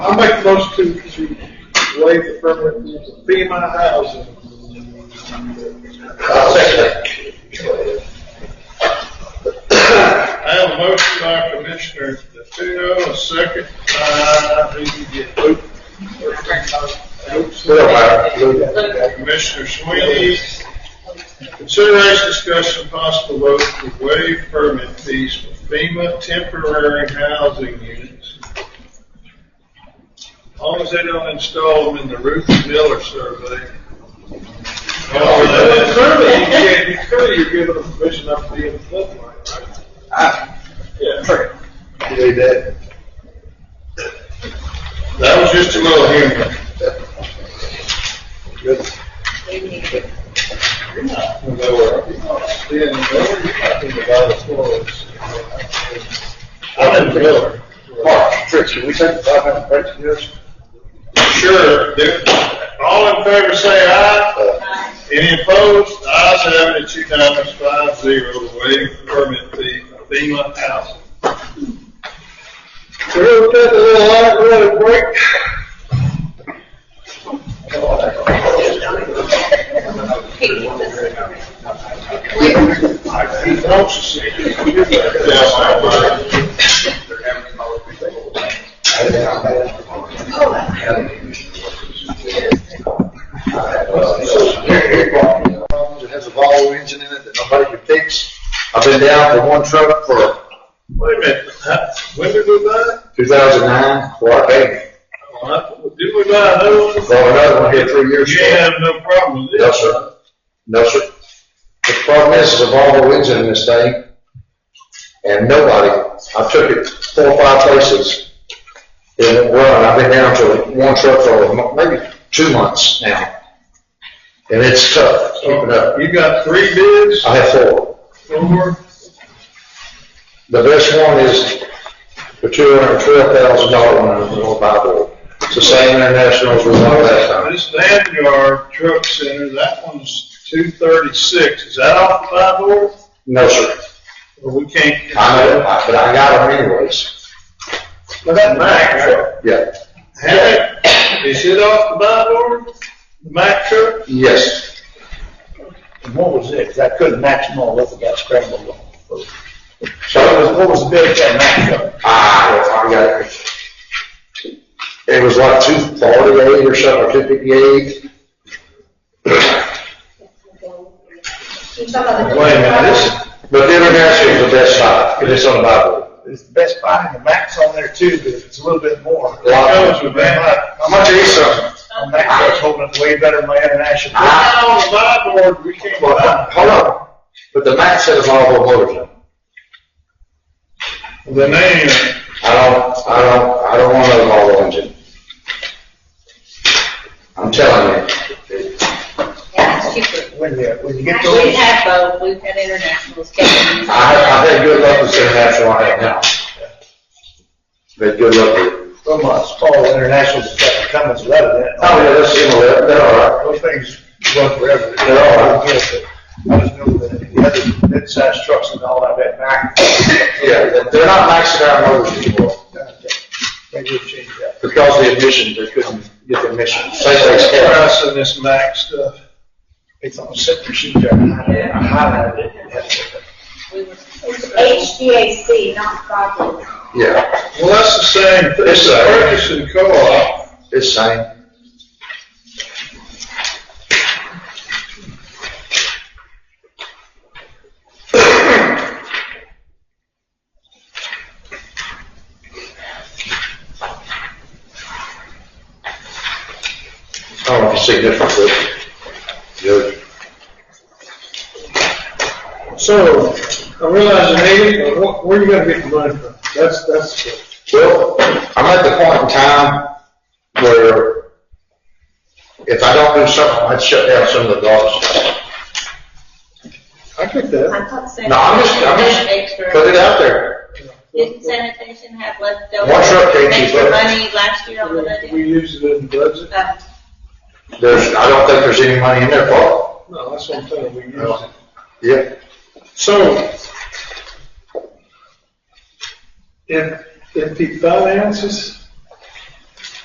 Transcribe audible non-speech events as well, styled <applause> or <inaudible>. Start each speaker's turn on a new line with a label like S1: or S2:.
S1: I'll make the motion to waive the permanent fees of FEMA housing.
S2: I'll second
S1: I have a motion by Commissioner DeFeo, a second by, who did you get, Luke?
S2: it. Well, I believe that.
S1: Commissioner Sweeney. Consideration, discussion, possible vote to waive permit fees for FEMA temporary housing units. As long as they don't install them in the Ruth Miller survey. Survey, you can't, survey you're giving them permission up to be in the floodplain, right?
S2: Yeah. You believe that?
S1: That was just a little humor.
S2: Good. I'm in the middle. Mark, Trish, should we take the five minute break to this?
S1: Sure, do- all in favor say aye. Any opposed? Ayes have it, it's unanimous, five zero, waive permit fee, FEMA housing.
S2: We'll take a little light road break.
S1: Yes, I agree.
S2: It has a Volvo engine in it that nobody can fix. I've been down for one truck for
S1: Wait a minute, when did we buy it?
S2: two thousand nine, for our baby.
S1: Oh, I- Did we buy another one?
S2: Bought another one here three
S1: You
S2: years
S1: ain't
S2: ago.
S1: have no problem with
S2: No,
S1: this.
S2: sir. No, sir. The problem is, is a Volvo engine in this thing, and nobody, I took it four or five places. It didn't run, I've been down to one truck for a mo- maybe two months now. And it's tough, keeping up.
S1: You got three bids,
S2: I have four.
S1: four,
S2: The best one is the two hundred and twelve thousand dollar one, in the North Bible. It's the same international as we won last time.
S1: this Vanguard Truck Center, that one's two thirty-six, is that off the five door?
S2: No, sir.
S1: Or we can't?
S2: I know, I- but I got them anyways.
S1: Well, that Mack truck,
S2: Yeah.
S1: hey, is it off the buy order? The Mack truck?
S2: Yes.
S3: And what was it? 'Cause I couldn't match them all up, I got scrambled on.
S2: So
S3: What was, what was the bid that match up?
S2: Ah, I got it. It was like two forty-eight or something, or two fifty-eight.
S4: Wait
S2: But the international is the best side, 'cause it's on the Bible.
S3: It's the Best Buy and the Max on there too, but it's a little bit more.
S2: A lot
S1: That
S2: of-
S1: was with Mack.
S2: How much is something?
S3: My Max truck's holding up way better than my international.
S2: Ah,
S1: Not on the buy order, we can't
S2: well,
S1: buy.
S2: hold on, but the Mac said it's all over motor.
S1: it. The name,
S2: I don't, I don't, I don't want another Volvo engine. I'm telling you,
S4: Yeah, it's cheaper.
S3: When you, when you get
S4: Actually, we
S3: those,
S4: had both, we've had <laughs> internationals.
S2: I, I've had good luck with the international I have now. But good luck with,
S3: from uh, small internationals, it's got the Cummins leather in it.
S2: oh, yeah, that's similar, they're all right.
S3: Those things run forever.
S2: They're all right.
S3: I just know that the other mid-sized trucks and all that, that Mack.
S2: Yeah, they're- they're not maxing out motors anymore,
S3: Maybe we'll change that.
S2: because the admission, they couldn't get the admission. Say they
S1: what's the
S2: scared.
S1: price of this Mack stuff?
S3: It's on a set machine jar. I highlighted it. It has it.
S5: HVAC, not property.
S2: Yeah,
S1: Well, that's the same, thing.
S2: It's uh,
S1: it's purchase
S2: the-
S1: and co-op,
S2: it's same. I don't know if you see difference, but, Judge.
S1: so, I realize the name, but wh- where are you gonna get the money from? That's, that's, the-
S2: Well, I'm at the point in time where if I don't do something, I'd shut down some of the golf stuff.
S1: I get that.
S4: I thought
S2: No, I'm just, I'm just,
S4: sanitation
S2: put
S4: had
S2: it out there.
S4: Didn't sanitation have leftover?
S2: What's your case,
S4: Extra
S2: Eva?
S4: money last year on the
S1: We
S4: budget?
S1: use it in the budget,
S4: Uh,
S2: There's, I don't think there's any money in there, Paul.
S1: no, that's what I'm saying, we use it.
S2: Yeah.
S1: So, if, if he finances